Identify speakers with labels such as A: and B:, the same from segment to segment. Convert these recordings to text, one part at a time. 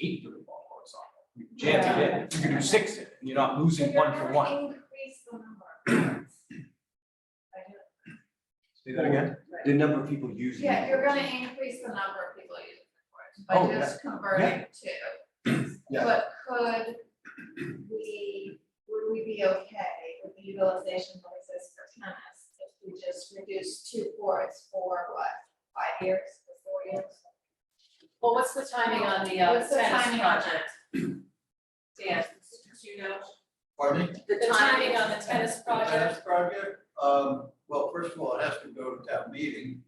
A: eight through the ball or something. You can Jam it in, you can do six in, it, and you're not losing one for one.
B: Increase the number. of cards. I do-
A: Say that again?
C: The number of people using.
B: Yeah,
C: it.
B: you're gonna increase the number of people using the course
A: Oh,
B: by
A: yeah.
B: just converting two.
A: Yeah.
B: But could we, would we be okay with the utilization that exists for tennis if we just reduce two courts for what, five years, four years?
D: Well, what's the timing on the uh
B: What's the
D: tennis
B: timing on
D: project? Dan, do you know?
E: Pardon me?
D: The timing on the tennis project?
E: Tennis project, um, well, first of all, it has to go to town meeting,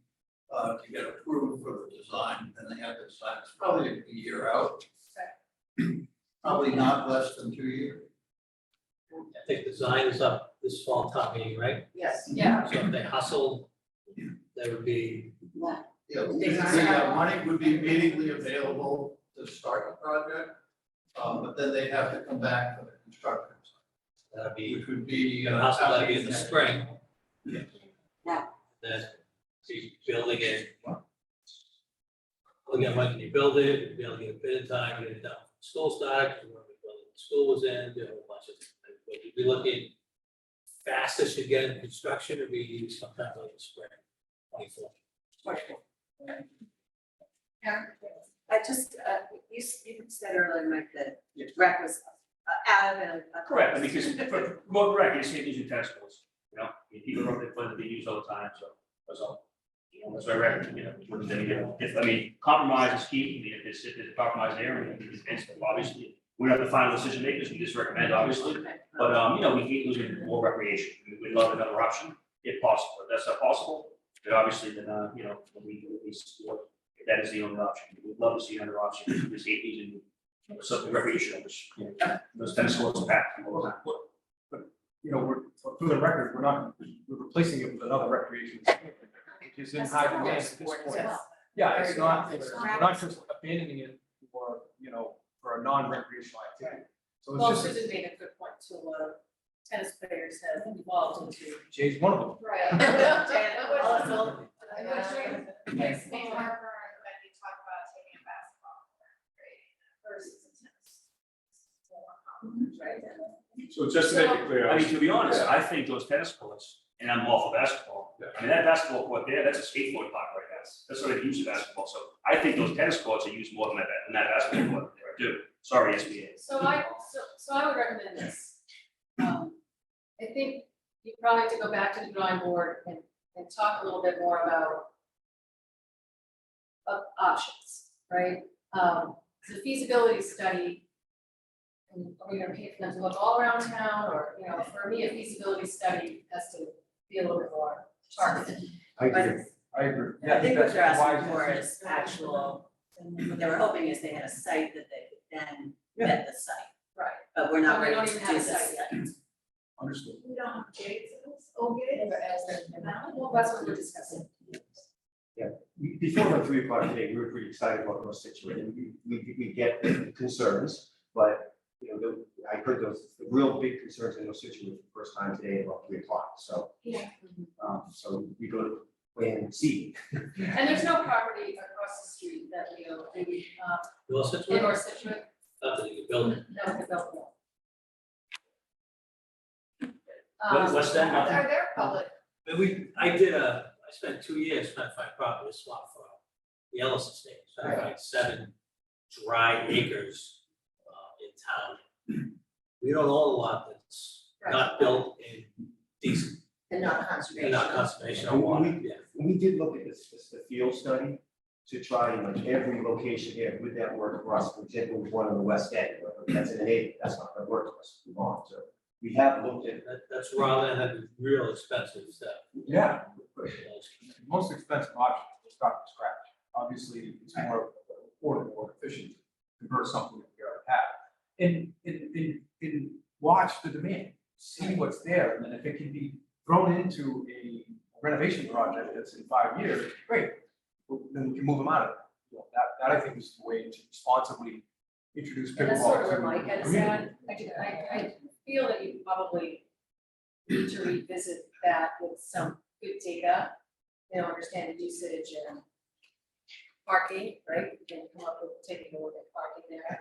E: uh, to get approved for the design, and they have to sign, it's probably a year out.
A: Mm-hmm.
E: Probably not less than two years.
F: I think the design is up this fall top meeting, right?
D: Yes.
B: Yeah.
F: So if they hustle, there would be,
E: Yeah, the uh, money would be immediately available to start the project, um, but then they have to come back for the construction,
F: that'd be,
E: which would be.
F: you
E: uh,
F: know, hustle, that'd be in the
E: next-
F: spring.
E: Yeah.
G: Yeah.
F: Then, so you're building it. Looking at when can you build it, you'd be able to get a bit of time, get it done, school started, when the building- school was in, do a whole bunch of, things. but you'd be looking. Fastest you get in construction would be sometime like the spring, twenty-four.
G: I just, uh, you, s- you said earlier, Mike, that rec was uh, out of a. a-
H: Correct, because for, well, right, you see these in tennis courts, you know, I mean, people are, they're, they use all the time, so, that's all. You know, that's my record, you know, what they, you know, if, I mean, compromise is key, I mean, if it's, if it's a compromised area, it's, it's, obviously, we're not the final decision makers, we just recommend, obviously. But, um, you know, we hate losing more recreation, We- we'd love another option, if possible, if that's not possible, then obviously, then, uh, you know, then we, we support, if that is the only option, we'd love to see another option, we hate these and you know, something recreational, which, you know, those tennis courts are packed all the time.
A: You know, we're, for for the record, we're not, we're replacing it with another recreation. center, which is in high demand at this
G: Sports as
A: point.
G: well.
A: Yeah, it's not,
G: It's
A: we're not just abandoning it for, you know, for a non-recreational activity. So
D: Well,
A: it's just,
D: Susan made a good point to uh tennis players have evolved into.
A: Jay's one of them.
B: Right.
D: Dan, all us old
B: I wish we, makes me harper when you talk about taking a basketball court and creating that versus a tennis. It's more complicated, right?
H: So just to make it clear. I mean, to be honest, I think those tennis courts, and I'm all for basketball, I mean, that basketball court there, that's a skateboard park right now, that's what I use for basketball, so I think those tennis courts are used more than that, than that basketball court there, I do, sorry, SBA.
D: So I, so, so I would recommend this. Um, I think you probably have to go back to the drawing board and, and talk a little bit more about of options, right? Um, the feasibility study, and are we gonna pay for them to look all around town, or, you know, for me, a feasibility study has to be a little bit more targeted.
A: I
G: But
A: I agree.
G: I think what they're
A: why-
G: asking for is actual, what they were hoping is they had a site that they could then vet the site,
D: Right.
G: but we're
D: But
G: not
D: we
G: ready
D: don't
G: to do
D: even have a
G: this
D: site
G: yet.
A: Understood.
B: We don't have gates, it's all gates.
D: Well, that's what we're discussing.
C: Before the three o'clock today, we were pretty excited about those situations. We, we, we get the concerns, but, you know, the- I heard those, the real big concerns in those situations the first time today at about three o'clock, so.
B: Yeah.
C: Um, so we go to plan C.
D: And there's no property across the street that we own, that we, uh,
F: You all set to
D: in
F: it?
D: or Situate,
F: Not that you could build it.
D: that we built one.
F: What- what's that?
D: Um,
B: Are there public
F: But we, I did a, I spent two years trying to find property to swap for the Ellis Estate, so I found seven dry acres uh in town. We don't own a lot that's not built in decent,
G: And not
F: and
G: conservation.
F: not conservation or water, yeah.
C: We did look at this, this, the field study to try, you know, every location here, would that work for us? For example, with one on the west end, but that's in an eight, that's not gonna work for us, we want to. We have looked at
F: That that's raw land, that'd be real expensive stuff.
A: Yeah,
F: you
A: most expensive option is start from scratch. Obviously, it's more affordable or efficient to convert something that we already have. And, and, and, and watch the demand, see what's there, and then if it can be thrown into a renovation project that's in five years, great. Well, Then we can move them out of it. You know, That, that I think is the way to responsibly introduce
D: And that's
A: pickleball
D: sort
A: to
D: of
A: the
D: where Mike had
A: community.
D: said, I do, I, I feel that you probably need to revisit that with some good data, you know, understand the usage and parking, right? You can come up with, taking a look at parking there.